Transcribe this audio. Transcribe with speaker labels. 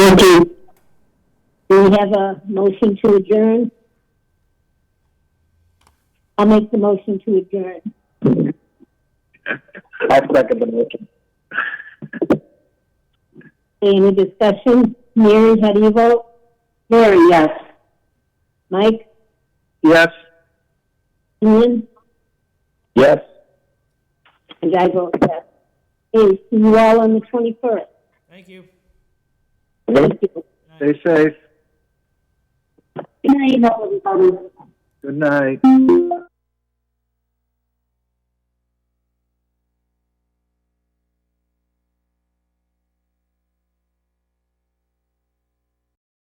Speaker 1: Do we have a motion to adjourn? I'll make the motion to adjourn.
Speaker 2: I second the motion.
Speaker 1: Any discussion? Mary, how do you vote? Mary, yes. Mike?
Speaker 2: Yes.
Speaker 1: Ian?
Speaker 2: Yes.
Speaker 1: And I vote yes. Hey, see you all on the 21st.
Speaker 3: Thank you.
Speaker 1: Thank you.
Speaker 2: Stay safe.
Speaker 1: Good night, everybody.
Speaker 2: Good night.